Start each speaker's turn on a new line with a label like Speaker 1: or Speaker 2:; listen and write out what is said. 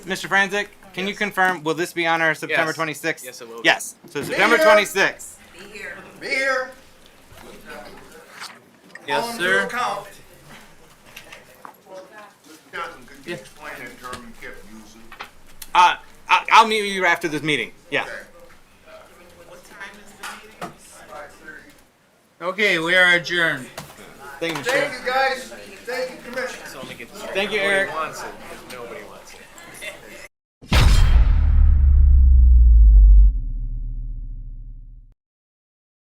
Speaker 1: Mr. Franzik, can you confirm? Will this be on our September
Speaker 2: Yes.
Speaker 1: 26th?
Speaker 2: Yes, it will be.
Speaker 1: Yes. So September
Speaker 3: here.
Speaker 1: 26th.
Speaker 4: Be here.
Speaker 3: Be here.
Speaker 2: Yes,
Speaker 3: on
Speaker 2: sir.
Speaker 3: your count.
Speaker 5: Johnson, could you explain that term you kept using?
Speaker 1: Uh, I, I'll meet you after this meeting. Yeah.
Speaker 2: Okay, we are adjourned.
Speaker 1: Thank you, Mr.
Speaker 3: Thank you, guys. Thank you, Commissioner.
Speaker 1: Thank you, Eric.
Speaker 2: Wants it.